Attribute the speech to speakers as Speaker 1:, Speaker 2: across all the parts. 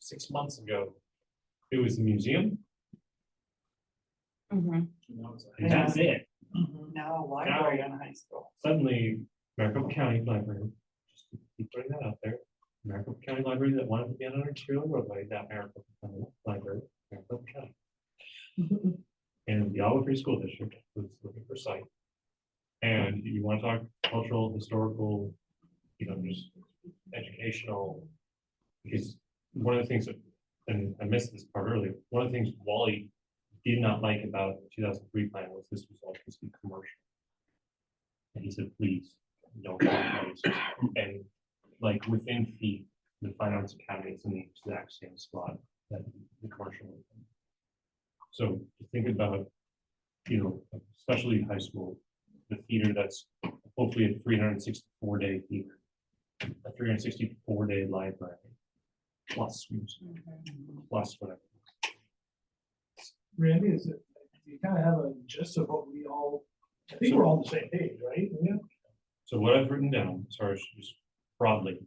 Speaker 1: six months ago, it was the museum,
Speaker 2: Mhm.
Speaker 1: and that's it.
Speaker 3: Now a library on high school.
Speaker 1: Suddenly, Maricopa County Library, just keep putting that out there, Maricopa County Library that wanted to be on our trail roadway, that Maricopa County Library, Maricopa County. And the Olive Free School District was looking for site. And you want to talk cultural, historical, you know, just educational. Because one of the things that, and I missed this part earlier, one of the things Wally did not like about the two thousand three plan was this was all supposed to be commercial. And he said, please, don't. do this." And like within feet, the finance academy is in the exact same spot that the commercial. is in. So think about, you know, especially high school, the theater that's hopefully a three hundred and sixty-four day theater. A three hundred and sixty-four day library. Plus, plus whatever.
Speaker 4: Randy, is it, you kind of have a gist of what we all, I think we're all on the same page, right? Yeah.
Speaker 1: So what I've written down, sorry, it's just broadly.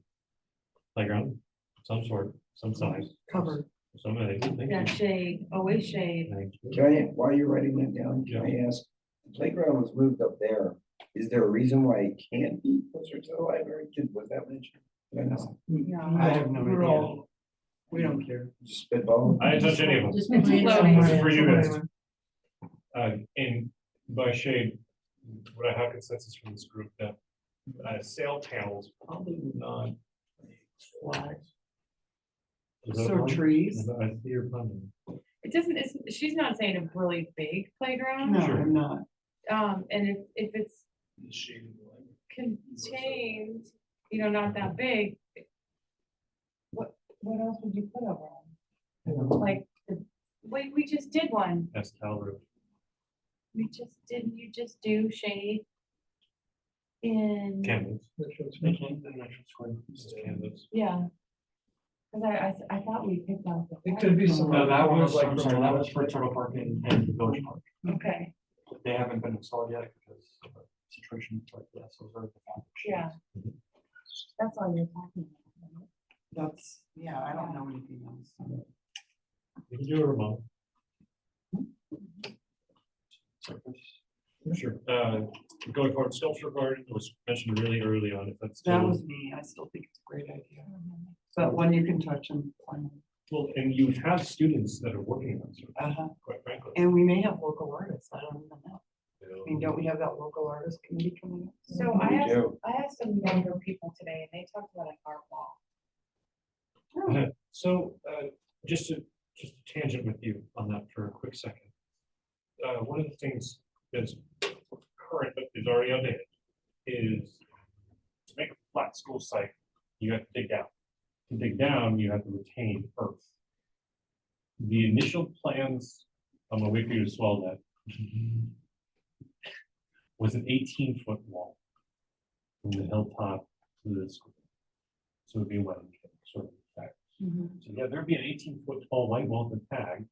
Speaker 1: Playground, some sort, some size.
Speaker 3: Covered.
Speaker 1: Some, I
Speaker 2: Yeah,
Speaker 1: think.
Speaker 2: shade, always shade.
Speaker 5: Can I, while you're writing that down,
Speaker 1: Yeah.
Speaker 5: can I ask, the playground was moved up there. Is there a reason why it can't be closer to the library? Did, was that mentioned? Did I know?
Speaker 2: Yeah.
Speaker 4: I have no idea. We don't care.
Speaker 5: Just spitball?
Speaker 1: I didn't touch any of them,
Speaker 2: Just
Speaker 3: It's
Speaker 2: loading.
Speaker 3: floating.
Speaker 1: This is for you guys. uh, and by shade, what I have consensus from this group that, uh, sail panels probably would not. fly. Is that a
Speaker 3: So
Speaker 1: pun?
Speaker 3: trees?
Speaker 1: I see your pun.
Speaker 2: It doesn't, it's, she's not saying a really big
Speaker 3: No,
Speaker 2: playground,
Speaker 1: Sure.
Speaker 3: I'm not.
Speaker 2: um, and if, if it's
Speaker 4: The shade of the light.
Speaker 2: contained, you know, not that big. What, what else would you put over them? Like, the- we, we just did one,
Speaker 1: That's Calvert.
Speaker 2: we just, didn't you just do shade? In,
Speaker 1: Canvas.
Speaker 4: That's what's
Speaker 1: That's not-
Speaker 4: mentioned.
Speaker 1: that's not square. This is canvas.
Speaker 2: yeah. Cause I, I, s- I thought we picked out the.
Speaker 4: It could be
Speaker 2: flag.
Speaker 4: some.
Speaker 6: No, that was,
Speaker 4: like
Speaker 6: I'm sorry, that was for Turtle Park and, and Village Park.
Speaker 2: Okay,
Speaker 6: They haven't been installed yet because of the situation like that, so they're.
Speaker 2: yeah. That's all you're talking about. right?
Speaker 3: That's, yeah, I don't know anything else.
Speaker 1: You can do a remote. Sure. Uh, going forward, sculpture garden was mentioned really early on, if that's.
Speaker 3: That
Speaker 1: still-
Speaker 3: was me. I still think it's a great idea.
Speaker 2: Uh-huh.
Speaker 3: But one you can touch and. climb.
Speaker 1: Well, and you have students that are working on it,
Speaker 3: Uh-huh.
Speaker 1: quite frankly.
Speaker 3: And we may have local artists. I don't even know.
Speaker 1: you know.
Speaker 3: I mean, don't we have that local artist committee coming up?
Speaker 2: So I
Speaker 5: We
Speaker 2: asked,
Speaker 5: do.
Speaker 2: I asked some younger people today and they talked about an art wall.
Speaker 1: So, uh, just to, just a tangent with you on that for a quick second. Uh, one of the things that's current, but is already outdated, is to make a flat school site, you have to dig down. To dig down, you have to retain earth. The initial plans, I'm gonna wait for you to swallow that. Was an eighteen foot wall. From the hilltop to the school. So it'd be a wetland, sort of, effect. So yeah, there'd be an eighteen foot tall white wall with a tag.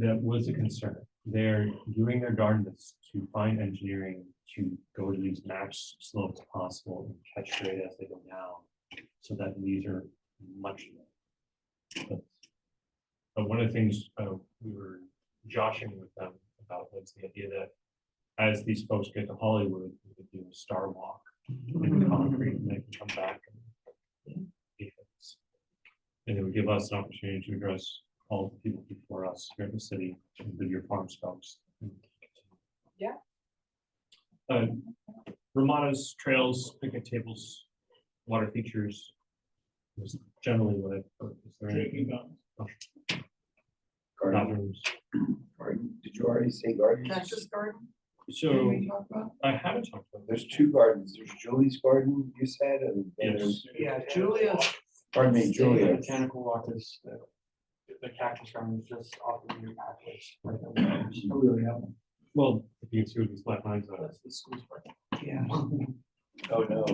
Speaker 1: That was a concern. They're doing their darndest to find engineering to go to these max slopes possible and catch rate as they go down. So that these are much. lower. But- But one of the things uh, we were joshing with them about was the idea that as these folks get to Hollywood, we could do a star walk in concrete and they can come back. and be fixed. And it would give us an opportunity to address all the people before us here in the city, and the your farm folks.
Speaker 2: Yeah.
Speaker 1: Uh, Ramadas, trails, picnic tables, water features. Is generally what I, is there
Speaker 4: Drinking
Speaker 1: anything?
Speaker 4: fountain.
Speaker 5: Garden,
Speaker 1: Bathrooms.
Speaker 5: garden. Did you already say gardens?
Speaker 3: Cactus garden? Did
Speaker 1: So
Speaker 3: we talk about?
Speaker 1: I haven't talked about this.
Speaker 5: There's two gardens. There's Julie's garden, you said, and then
Speaker 1: Yes.
Speaker 5: there's,
Speaker 3: Yeah, Julia's
Speaker 5: pardon me,
Speaker 6: The
Speaker 5: Julia.
Speaker 6: Botanical walk is, the uh, the cactus garden is just off the new pathways. right there.
Speaker 1: Well, if you can see what these black lines are.
Speaker 6: That's the school's park.
Speaker 3: Yeah,
Speaker 5: Oh, no.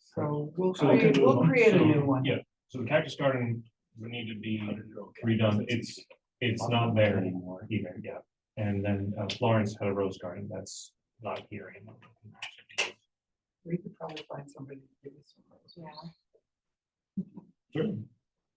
Speaker 3: so we'll
Speaker 1: So we
Speaker 3: create,
Speaker 1: could-
Speaker 3: we'll create a
Speaker 1: so,
Speaker 3: new one.
Speaker 1: Yeah, so the cactus garden would need to be redone. It's, it's not there anymore either, yeah. And then uh, Florence had a rose garden that's not here anymore.
Speaker 3: We could probably find somebody to give us some.
Speaker 2: Yeah.
Speaker 1: Sure.